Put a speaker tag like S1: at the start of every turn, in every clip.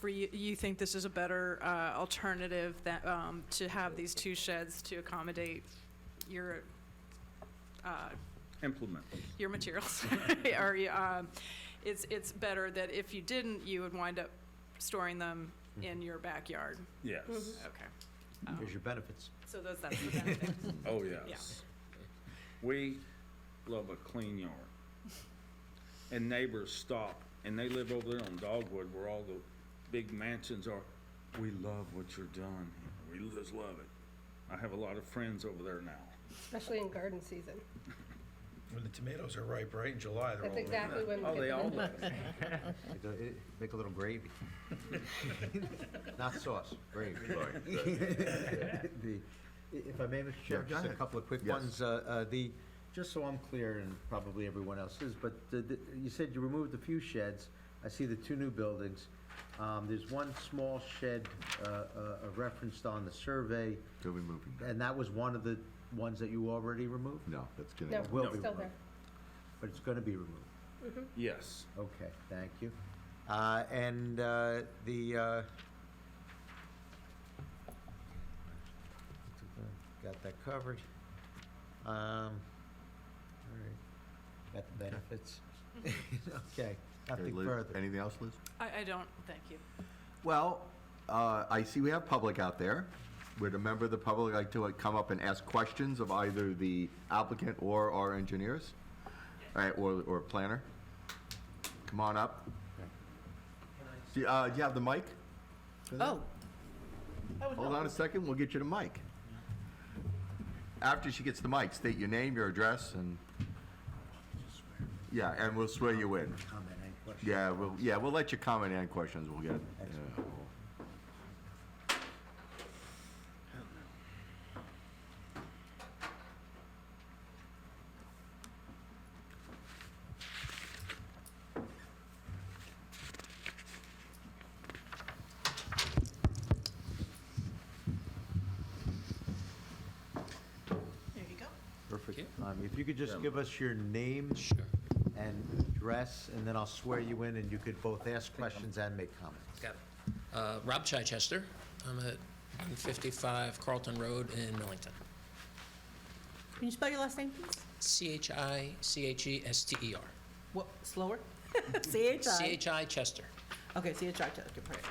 S1: for you, you think this is a better uh, alternative that, um, to have these two sheds to accommodate your, uh,
S2: implement.
S1: your materials. Or, um, it's, it's better that if you didn't, you would wind up storing them in your backyard.
S2: Yes.
S1: Okay. Um,
S3: Mm-hmm. Here's your benefits.
S1: So those, that's the benefit.
S2: Oh, yes. We love a clean yard. And neighbors stop, and they live over there on Dogwood where all the big mansions are. We love what you're doing. here. We just love it. I have a lot of friends over there now.
S4: Especially in garden season.
S5: When the tomatoes are ripe, right, in July, they're all
S4: That's
S5: ripe.
S4: exactly when we
S2: Oh,
S4: get
S2: they
S4: them
S2: all
S4: in.
S2: love it.
S3: Make a- eh, Make a little gravy. Not sauce, gravy. The- i- If I may, Mr.
S6: Yeah,
S3: Chair,
S6: go
S3: just a
S6: ahead.
S3: couple of quick
S6: Yes.
S3: ones. Uh, uh, The, just so I'm clear, and probably everyone else is, but the- the- you said you removed a few sheds. I see the two new buildings. Um, There's one small shed uh, uh, uh, referenced on the survey,
S6: They'll be moving back.
S3: and that was one of the ones that you already removed?
S6: No, that's gonna.
S4: No,
S6: go.
S3: Will
S4: it's
S3: be
S4: still
S3: removed.
S4: there.
S3: But it's going to be removed?
S2: Yes.
S3: Okay, thank you. Uh, And uh, the, uh, got that covered. Um, All right, got the benefits. Okay,
S6: Okay,
S3: nothing
S6: Liz,
S3: further.
S6: Anything else, Liz?
S1: I, I don't, thank you.
S6: Well, uh, I see we have public out there. Would a member of the public like to uh, come up and ask questions of either the applicant or our engineers? All right, or, or planner? Come on up. Do you, uh, do you have the mic?
S7: Oh.
S6: Hold on a second, we'll get you the mic. After she gets the mic, state your name, your address, and, yeah, and we'll swear you in.
S3: Comment, any questions?
S6: Yeah, we'll, yeah, we'll let you comment and questions, we'll get, yeah, we'll-
S1: There you go.
S3: Perfect. Um, If you could just give us your name and address, and then I'll swear you in, and you could both ask questions and make comments.
S7: Got it. Uh, Rob Chichester. I'm at 155 Carlton Road in Millington.
S8: Can you spell your last name, please?
S7: E C-H-I-C-H-E-S-T-E-R.
S8: What, slower? C-H-I.
S7: C-H-I Chester.
S8: Okay, C-H-I, Chester, right.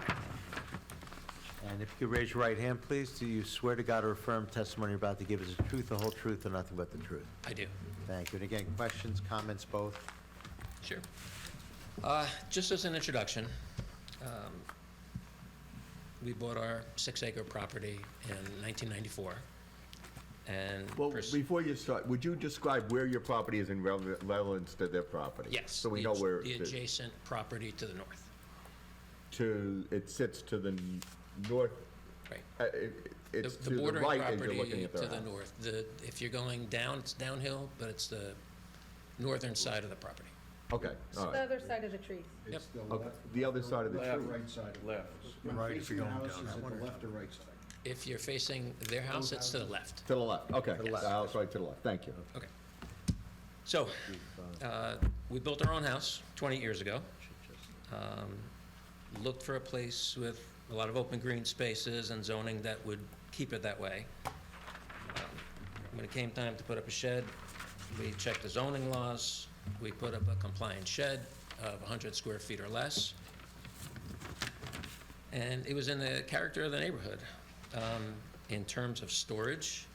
S3: And if you could raise your right hand, please, do you swear to God or affirm testimony you're about to give is the truth, the whole truth, and nothing but the truth?
S7: I do.
S3: Thank you. And again, questions, comments, both?
S7: Sure. Uh, Just as an introduction, um, we bought our six-acre property in 1994, and...
S6: Well,
S7: pers-
S6: before you start, would you describe where your property is in rele- relevance to their property?
S7: Yes.
S6: So we
S7: the
S6: know
S7: ad-
S6: where
S7: The
S6: it sits.
S7: adjacent property to the north,
S6: To, it sits to the n- north,
S7: right.
S6: uh, it-
S7: The-
S6: it's
S7: the
S6: to the
S7: bordering
S6: right as you're
S7: property
S6: looking at their
S7: To the
S6: house.
S7: north, the, if you're going down, it's downhill, but it's the northern side of the property.
S6: Okay, all
S4: The
S6: right.
S4: other side of the trees.
S7: It's
S6: Okay, The other side of the
S2: Left.
S6: tree.
S2: Right
S6: side.
S2: Left.
S5: Right, if you're going down.
S3: the left or right side?
S7: If you're facing their house, it's to the left.
S6: To the left, okay.
S3: the left.
S6: The house right to the left, thank you.
S7: Okay. So, uh, we built our own house 20 years ago. Um, Looked for a place with a lot of open green spaces and zoning that would keep it that way. Um, When it came time to put up a shed, we checked the zoning laws. We put up a compliant shed of 100 square feet or less. And it was in the character of the neighborhood. Um, In terms of storage,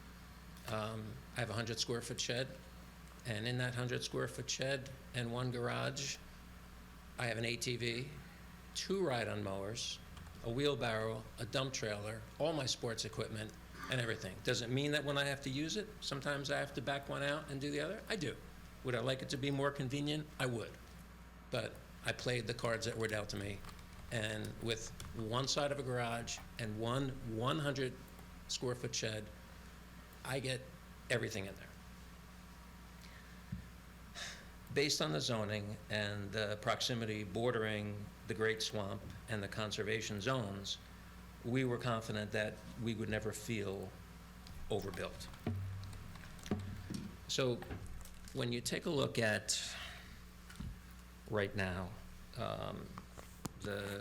S7: um, I have a 100 square foot shed, and in that 100 square foot shed and one garage, I have an ATV, two ride on mowers, a wheelbarrow, a dump trailer, all my sports equipment, and everything. Does it mean that when I have to use it, sometimes I have to back one out and do the other? I do. Would I like it to be more convenient? I would. But I played the cards that were dealt to me, and with one side of a garage and one 100 square foot shed, I get everything in there. Based on the zoning and the proximity bordering the Great Swamp and the conservation zones, we were confident that we would never feel overbuilt. So when you take a look at, right now, um, the